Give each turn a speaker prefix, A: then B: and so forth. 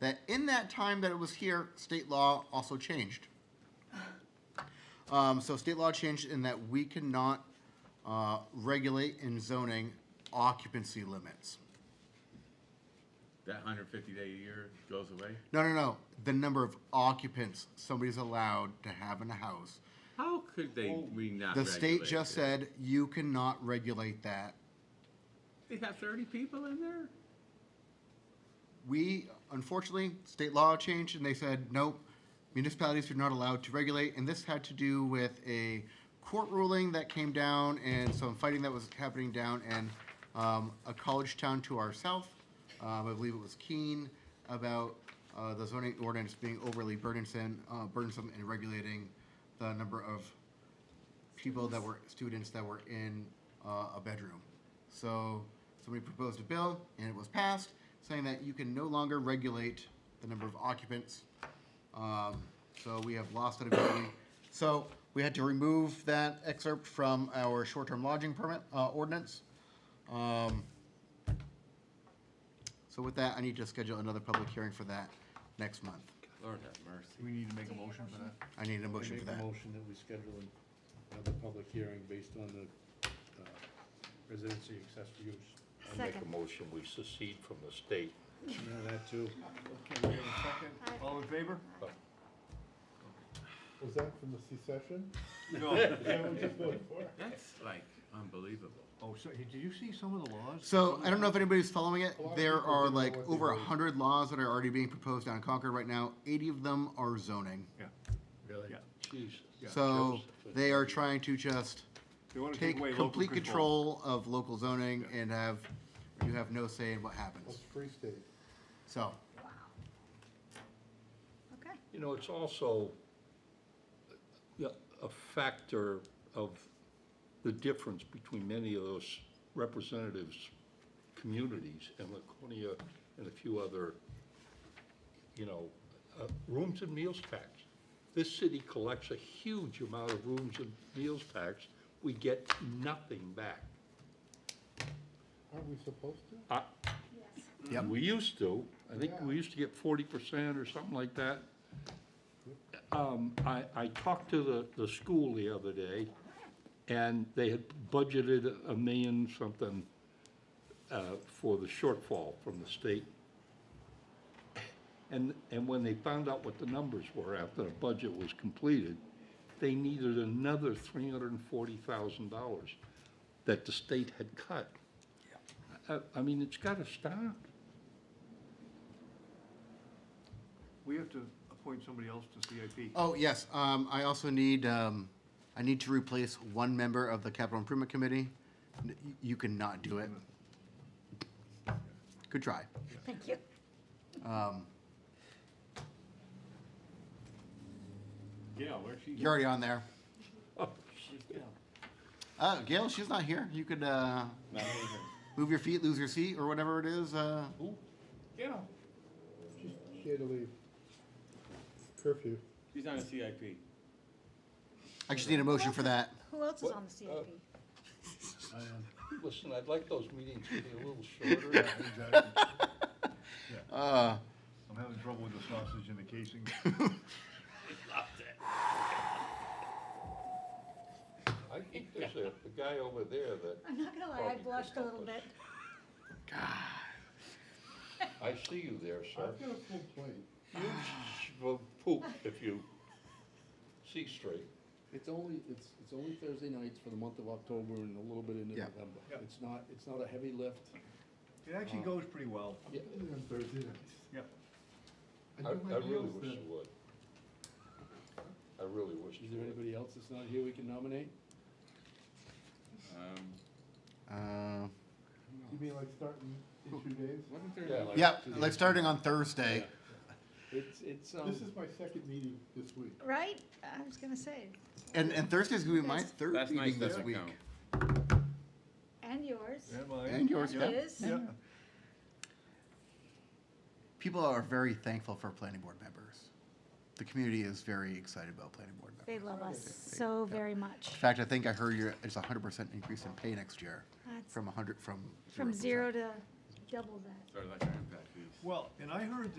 A: that in that time that it was here, state law also changed. Um, so state law changed in that we cannot, uh, regulate in zoning occupancy limits.
B: That hundred fifty day a year goes away?
A: No, no, no, the number of occupants somebody's allowed to have in a house.
B: How could they, we not
A: Oh, The state
B: regulate
A: just
B: it?
A: said, you cannot regulate that.
B: They have thirty people in there?
A: We, unfortunately, state law changed and they said, nope, municipalities are not allowed to regulate. And this had to do with a court ruling that came down and some fighting that was happening down in um, a college town to our south. Um, I believe it was Keene about uh, the zoning ordinance being overly burdensome, uh, burdensome in regulating the number of people that were, students that were in uh, a bedroom. So somebody proposed a bill and it was passed saying that you can no longer regulate the number of occupants. Um, So we have lost that ability. So we had to remove that excerpt from our short-term lodging permit uh, ordinance. Um, So with that, I need to schedule another public hearing for that next month.
B: Lord have mercy.
C: We need to make a motion for that.
A: I need a motion
D: Make
A: for
D: a
A: that.
D: motion that we schedule another public hearing based on the uh, residency accessory use.
E: I make a motion, we secede from the state.
D: No, that too.
C: Okay, we have a second. All in favor?
E: Oh.
F: Was that from the secession?
C: No.
B: That's like unbelievable.
C: Oh, so, did you see some of the laws?
A: So I don't know if anybody's following it.
F: A lot of
A: There
F: people
A: are
F: didn't know
A: like
F: what they
A: over a
F: voted.
A: hundred laws that are already being proposed down in Concord right now. Eighty of them are zoning.
C: Yeah.
D: Really?
C: Yeah.
D: Jesus.
A: So they are trying to just
C: They want to
A: take
C: take away local
A: complete control of local zoning and have, you have no say in what
F: That's
A: happens.
F: Free State.
A: So,
G: Okay.
E: You know, it's also yeah, a factor of the difference between many of those representatives' communities and Laconia and a few other, you know, uh, rooms and meals tax. This city collects a huge amount of rooms and meals tax. We get nothing back.
F: Aren't we supposed to?
E: I-
A: Yep.
E: We used to, I think we used to get forty percent or something like that. Um, I, I talked to the, the school the other day, and they had budgeted a million something uh, for the shortfall from the state. And, and when they found out what the numbers were after the budget was completed, they needed another three hundred and forty thousand dollars that the state had cut. I, I mean, it's gotta stop.
C: We have to appoint somebody else to CIP.
A: oh, yes, um, I also need, um, I need to replace one member of the capital improvement committee. N- y- You cannot do it. Good try.
G: Thank you.
A: Um,
B: Yeah, where's she?
A: You're already on there.
B: Yeah.
A: Uh, Gail, she's not here. You could, uh,
B: Not even.
A: move your feet, lose your seat, or whatever it is, uh,
B: Who? Yeah,
F: She, she had to leave. Curfew.
B: she's on a CIP.
A: I just need a motion for that.
G: Who else is on the CIP?
D: I am.
E: Listen, I'd like those meetings to be a little shorter.
D: Yeah, exactly.
A: Uh,
C: I'm having trouble with the sausage and the casing.
E: I think there's a, a guy over there that,
G: I'm not gonna lie, I
E: Probably
G: blushed a little bit.
E: Christopher's. I see you there, sir.
F: I've got a full plate.
E: You sh- will poop if you see straight.
D: It's only, it's, it's only Thursday nights for the month of October and a little bit into
A: Yeah.
D: November.
C: Yeah.
D: It's not, it's not a heavy lift.
C: It actually goes pretty well.
F: I'm eating on Thursday nights.
C: Yeah.
E: I, I
F: do my
E: really
F: meals
E: wish
F: then.
E: you would. I really wish
D: Is
E: you
D: there
E: would.
D: anybody else that's not here we can nominate?
B: Um,
A: uh,
F: You mean like starting in two days?
B: wasn't
E: Yeah,
B: there,
E: like-
A: yeah, like starting on Thursday.
D: It's, it's, um,
F: This is my second meeting this week.
G: Right? I was gonna say,
A: And, and Thursday's gonna be my
G: That's-
A: third
B: last
A: meeting
B: night
A: this
B: doesn't
A: week.
B: count.
G: and yours.
C: And mine.
A: And yours,
G: And
A: yeah.
G: his.
C: Yeah.
A: People are very thankful for planning board members. The community is very excited about planning board
G: They
A: members.
G: love us so very much.
A: In fact, I think I heard you're, it's a hundred percent increase in pay next year,
G: That's
A: from a hundred, from.
G: From zero
A: 0%.
G: to double that.
B: sort of like our impact fees.
C: Well, and I heard